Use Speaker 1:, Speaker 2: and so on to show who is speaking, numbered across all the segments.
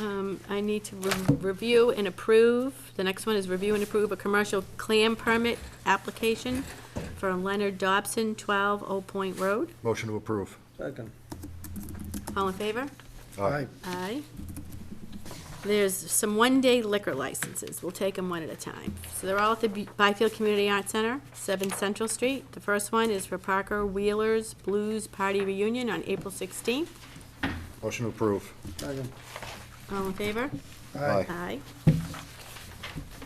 Speaker 1: Um, need to re- review and approve, the next one is review and approve a commercial clam permit application for Leonard Dobson, 12 Old Point Road.
Speaker 2: Motion to approve.
Speaker 3: Second.
Speaker 1: All in favor?
Speaker 2: Aye.
Speaker 1: Aye. There's some one-day liquor licenses. We'll take them one at a time. So they're all at the Bu- Byfield Community Arts Center, 7 Central Street. The first one is for Parker Wheeler's Blues Party Reunion on April 16th.
Speaker 2: Motion to approve.
Speaker 3: Second.
Speaker 1: All in favor?
Speaker 2: Aye.
Speaker 1: Aye.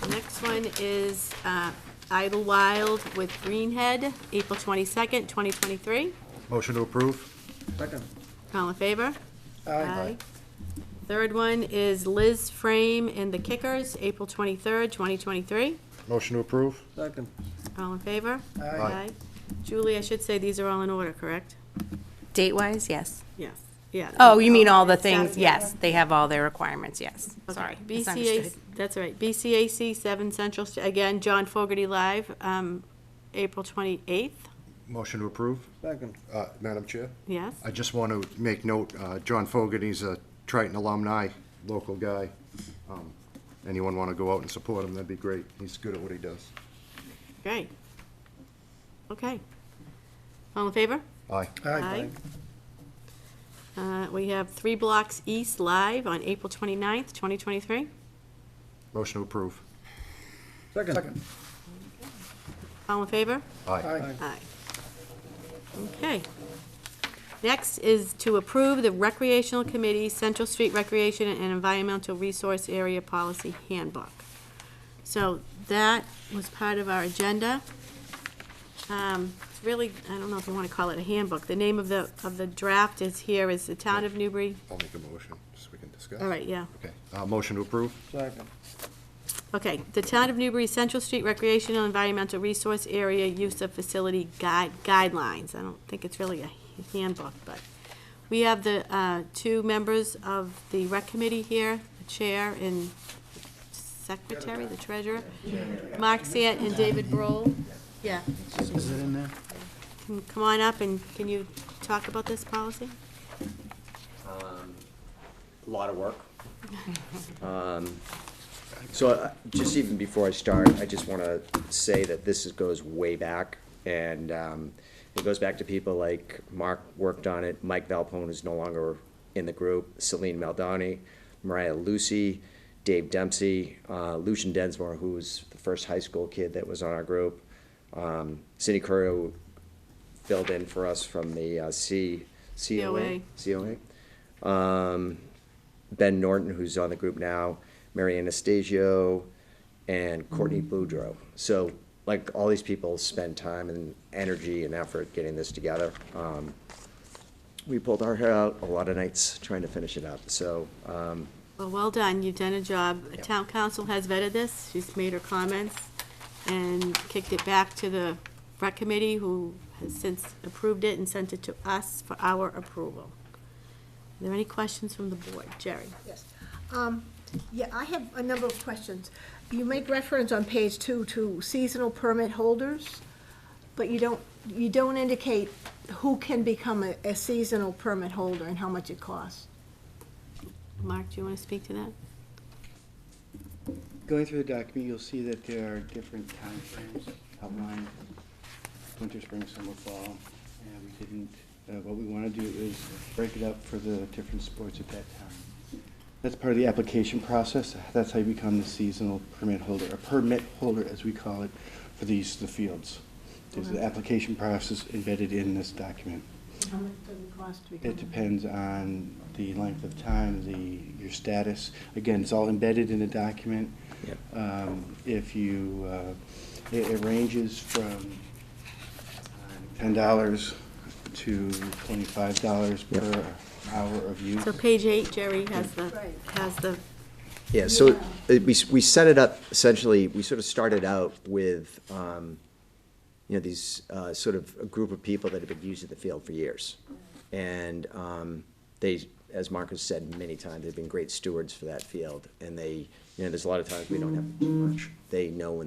Speaker 1: The Next one is uh, Idlewild with Greenhead, April 22nd, 2023.
Speaker 2: Motion to approve.
Speaker 3: Second.
Speaker 1: All in favor?
Speaker 3: Aye.
Speaker 1: Third one is Liz Frame and the Kickers, April 23rd, 2023.
Speaker 2: Motion to approve.
Speaker 3: Second.
Speaker 1: All in favor?
Speaker 3: Aye.
Speaker 1: Julie, I should say these are all in order, correct?
Speaker 4: Date-wise, yes.
Speaker 1: Yes, yeah.
Speaker 4: Oh, you mean all the
Speaker 1: Staff,
Speaker 4: things,
Speaker 1: yeah.
Speaker 4: yes, they have all their requirements, yes,
Speaker 1: Okay.
Speaker 4: sorry.
Speaker 1: BCAC,
Speaker 4: misunderstood.
Speaker 1: that's all right, BCAC 7 Central, St- again, John Fogerty Live, um, April 28th,
Speaker 2: Motion to approve.
Speaker 3: Second.
Speaker 2: Uh, Madam Chair?
Speaker 1: yes?
Speaker 2: I just want to make note, uh, John Fogarty's a Triton alumni, local guy. Um, Anyone want to go out and support him, that'd be great. He's good at what he does.
Speaker 1: Great. Okay. All in favor?
Speaker 2: Aye.
Speaker 1: Aye. Uh, We have Three Blocks East Live on April 29th, 2023.
Speaker 2: Motion to approve.
Speaker 3: Second.
Speaker 1: All in favor?
Speaker 2: Aye.
Speaker 1: Aye. Okay. Next is to approve the Recreational Committee Central Street Recreation and Environmental Resource Area Policy Handbook. So that was part of our agenda. Um, It's really, I don't know if you want to call it a handbook. The name of the, of the draft is here, is the Town of Newbury.
Speaker 2: I'll make a motion, so we can discuss.
Speaker 1: All right, yeah.
Speaker 2: Okay, Uh, motion to approve.
Speaker 3: Second.
Speaker 1: Okay, the Town of Newbury Central Street Recreational Environmental Resource Area Use of Facility Guide, Guidelines. I don't think it's really a handbook, but we have the, uh, two members of the rec committee here, the chair and secretary, the treasurer. Mark Sant and David Broll. Yeah,
Speaker 3: Is it in there?
Speaker 1: can, come on up and can you talk about this policy?
Speaker 5: a lot of work. Um, So uh, just even before I start, I just want to say that this is- goes way back, and um, it goes back to people like Mark worked on it, Mike Valpone is no longer in the group, Celine Maldani, Mariah Lucy, Dave Dempsey, uh, Lucian Densmore, who was the first high school kid that was on our group, um, Cindy Curio filled in for us from the uh, C, COA. COA. Um, Ben Norton, who's on the group now, Mary Anastasio, and Courtney Boudreau. So, like, all these people spend time and energy and effort getting this together. Um, we pulled our hair out a lot of nights trying to finish it up. So, um,
Speaker 1: Well, well done, you've done a job. Town council has vetted this, she's made her comments, and kicked it back to the rec committee, who has since approved it and sent it to us for our approval. Are there any questions from the board? Jerry?
Speaker 6: Yes. Um, Yeah, I have a number of questions. You make reference on page two to seasonal permit holders, but you don't, you don't indicate who can become a- a seasonal permit holder and how much it costs.
Speaker 1: Mark, do you want to speak to that?
Speaker 7: Going through the document, you'll see that there are different timeframes outlined, winter, spring, summer, fall. And we didn't, uh, what we want to do is break it up for the different sports at that time. That's part of the application process. That's how you become the seasonal permit holder, a permit holder, as we call it, for these, the fields. There's the application process embedded in this document.
Speaker 6: How much does it cost to become?
Speaker 7: It depends on the length of time, the, your status. Again, it's all embedded in the document.
Speaker 5: Yep.
Speaker 7: Um, If you, uh, it it ranges from uh, ten dollars to twenty-five dollars
Speaker 5: Yep.
Speaker 7: per hour of use.
Speaker 1: So page eight, Jerry has the,
Speaker 6: Right.
Speaker 1: has the,
Speaker 5: Yeah, so it- we, we set it up, essentially, we sort of started out with, um, you know, these, uh, sort of a group of people that have been using the field for years. And, um, they, as Mark has said many times, they've been great stewards for that field. And they, you know, there's a lot of times we don't have to do much. They know when the